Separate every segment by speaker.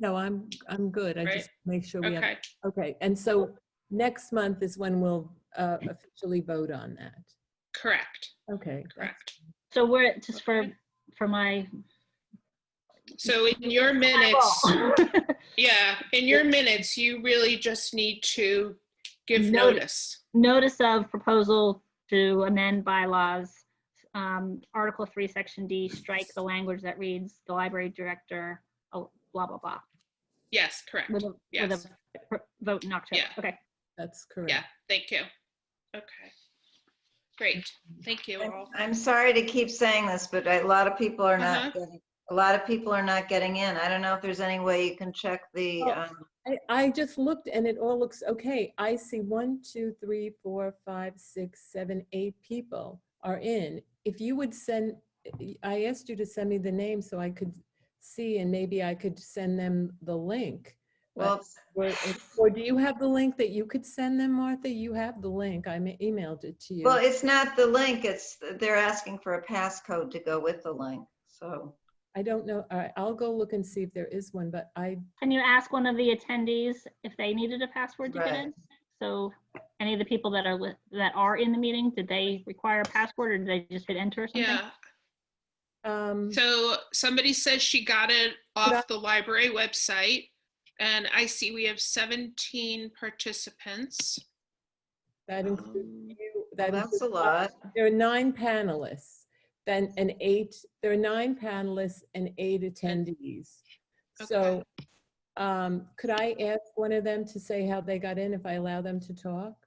Speaker 1: No, I'm, I'm good. I
Speaker 2: Right.
Speaker 1: just make sure we have,
Speaker 2: Okay,
Speaker 1: okay. And so next month is when we'll uh, officially vote on that.
Speaker 2: correct,
Speaker 1: Okay.
Speaker 2: correct.
Speaker 3: So we're, just for, for my.
Speaker 2: So in your minutes, yeah, in your minutes, you really just need to give
Speaker 3: Notice.
Speaker 2: notice.
Speaker 3: Notice of proposal to amend bylaws, um, Article 3, Section D, strike the language that reads the library director, oh, blah, blah, blah.
Speaker 2: Yes, correct.
Speaker 3: With a, with
Speaker 2: Yes.
Speaker 3: a pr- vote in October.
Speaker 2: Yeah.
Speaker 3: Okay,
Speaker 1: That's correct.
Speaker 2: Yeah, thank you. Okay. Great, thank you
Speaker 4: I'm-
Speaker 2: all.
Speaker 4: I'm sorry to keep saying this, but a lot of people are
Speaker 2: Uh-huh.
Speaker 4: not, getting- a lot of people are not getting in. I don't know if there's any way you can check the,
Speaker 1: Oh.
Speaker 4: um,
Speaker 1: I, I just looked and it all looks okay. I see one, two, three, four, five, six, seven, eight people are in. If you would send, I asked you to send me the name so I could see and maybe I could send them the link.
Speaker 4: well,
Speaker 1: Or, or do you have the link that you could send them, Martha? You have the link. I ma- emailed it to you.
Speaker 4: well, it's not the link, it's, they're asking for a passcode to go with the link, so.
Speaker 1: I don't know. All right, I'll go look and see if there is one, but I,
Speaker 3: can you ask one of the attendees if they needed a password to get
Speaker 4: Right.
Speaker 3: in? So any of the people that are, li- that are in the meeting, did they require a password or did they just hit enter or something?
Speaker 2: Yeah,
Speaker 1: um,
Speaker 2: so somebody says she got it
Speaker 1: Yeah.
Speaker 2: off the library website. And I see we have 17 participants.
Speaker 1: that includes
Speaker 2: Um,
Speaker 1: you. that
Speaker 4: That's
Speaker 1: includes-
Speaker 4: a lot.
Speaker 1: There are nine panelists, then an eight, there are nine panelists and eight attendees. So, um, could I ask one of them to say how they got in if I allow them to talk?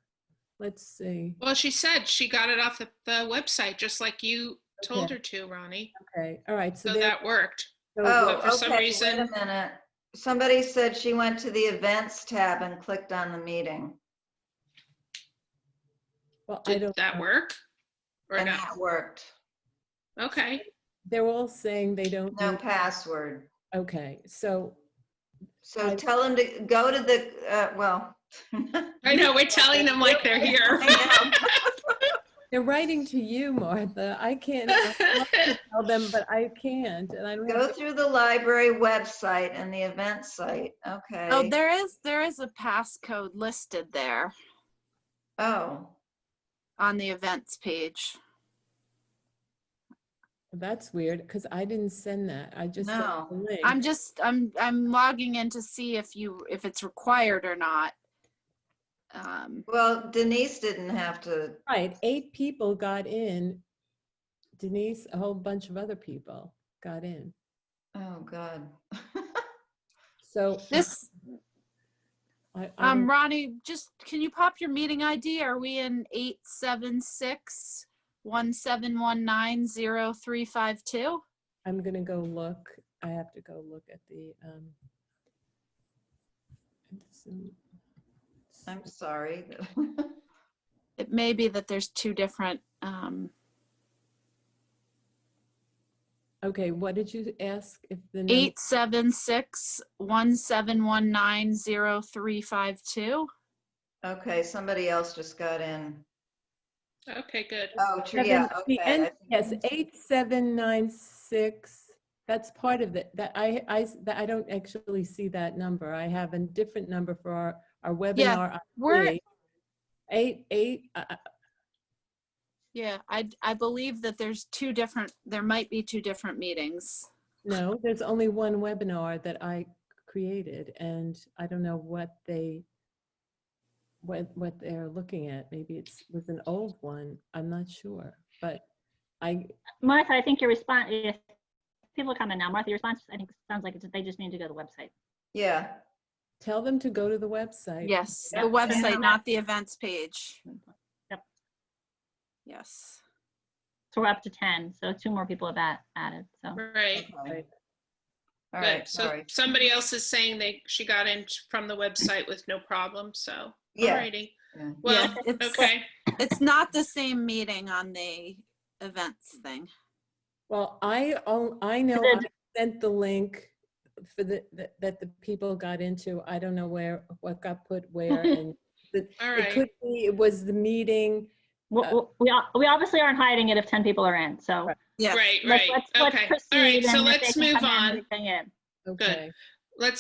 Speaker 1: Let's see.
Speaker 2: Well, she said she got it off the, the website, just like you told
Speaker 1: Okay.
Speaker 2: her to, Ronnie.
Speaker 1: Okay, all right, so
Speaker 2: So
Speaker 1: there.
Speaker 2: that worked.
Speaker 1: so
Speaker 4: Oh,
Speaker 2: But for some
Speaker 4: okay, wait
Speaker 2: reason-
Speaker 4: a minute. Somebody said she went to the events tab and clicked on the meeting.
Speaker 1: well, I
Speaker 2: Did
Speaker 1: don't
Speaker 2: that
Speaker 1: know.
Speaker 2: work? Or
Speaker 4: And
Speaker 2: no?
Speaker 4: that worked.
Speaker 2: Okay,
Speaker 1: They're all saying they don't,
Speaker 4: No
Speaker 1: need-
Speaker 4: password.
Speaker 1: okay, so
Speaker 4: So tell them to go to the, uh, well.
Speaker 2: I know, we're telling them like they're here.
Speaker 4: I know.
Speaker 1: They're writing to you, Martha. I can't I want to tell them, but I can't, and I don't
Speaker 4: Go
Speaker 1: have.
Speaker 4: through the library website and the event site, okay.
Speaker 5: Oh, there is, there is a passcode listed there
Speaker 4: Oh,
Speaker 5: on the events page.
Speaker 1: That's weird, because I didn't send that. I just sent
Speaker 4: No.
Speaker 1: the link.
Speaker 5: I'm just, I'm, I'm logging in to see if you, if it's required or not. Um,
Speaker 4: well Denise didn't have to,
Speaker 1: Right, eight people got in. Denise, a whole bunch of other people got in.
Speaker 4: oh, God.
Speaker 1: So
Speaker 5: This,
Speaker 1: I, I
Speaker 5: um,
Speaker 1: don't-
Speaker 5: Ronnie, just, can you pop your meeting ID? Are we in eight seven six one seven one nine zero three five two?
Speaker 1: I'm gonna go look. I have to go look at the, um. it's-
Speaker 4: I'm sorry.
Speaker 5: It may be that there's two different, um,
Speaker 1: Okay, what did you ask if the? number-
Speaker 5: eight seven six one seven one nine zero three five two.
Speaker 4: Okay, somebody else just got in.
Speaker 2: Okay, good.
Speaker 4: Oh, true,
Speaker 1: Seven-
Speaker 4: yeah,
Speaker 1: the
Speaker 4: okay.
Speaker 1: end-
Speaker 4: I think-
Speaker 1: Yes, eight, seven, nine, six, that's part of it, that I, I, s- that I don't actually see that number. I have a different number for our, our webinar.
Speaker 5: We're,
Speaker 1: ID. Eight, eight, uh, uh,
Speaker 5: yeah, I, I believe that there's two different, there might be two different meetings.
Speaker 1: no, there's only one webinar that I created, and I don't know what they, what, what they're looking at. Maybe it's, was an old one, I'm not sure, but I,
Speaker 3: Martha, I think your response, if people are coming now, Martha, your response, I think, sounds like it's- they just need to go to the website.
Speaker 4: Yeah,
Speaker 1: tell them to go to the website.
Speaker 5: Yes, the
Speaker 3: Yeah.
Speaker 5: website, not the events page.
Speaker 3: Yep.
Speaker 5: Yes.
Speaker 3: So we're up to 10, so two more people have at- added, so.
Speaker 2: Right.
Speaker 4: okay.
Speaker 1: Right.
Speaker 4: All
Speaker 2: Good.
Speaker 4: right,
Speaker 2: So
Speaker 4: sorry.
Speaker 2: somebody else is saying they, she got in from the website with no problem, so.
Speaker 4: Yeah,
Speaker 2: Alrighty.
Speaker 4: yeah.
Speaker 2: Well,
Speaker 5: Yeah, it's-
Speaker 2: okay,
Speaker 5: It's not the same meeting on the events thing.
Speaker 1: Well, I, on- I know I
Speaker 3: then-
Speaker 1: sent the link for the, that- that the people got into. I don't know where, what got put where. and the- It
Speaker 2: alright.
Speaker 1: could be, it was the meeting.
Speaker 3: We-
Speaker 1: Uh,
Speaker 3: we- We al- we obviously aren't hiding it if 10 people are in, so.
Speaker 5: Yes.
Speaker 2: Right,
Speaker 3: let's-
Speaker 2: right.
Speaker 3: let's- let's
Speaker 2: Okay.
Speaker 3: proceed
Speaker 2: Alright,
Speaker 3: and
Speaker 2: so
Speaker 3: if they
Speaker 2: let's
Speaker 3: can
Speaker 2: move
Speaker 3: come in,
Speaker 2: on.
Speaker 3: we can in.
Speaker 1: Okay.
Speaker 2: Let's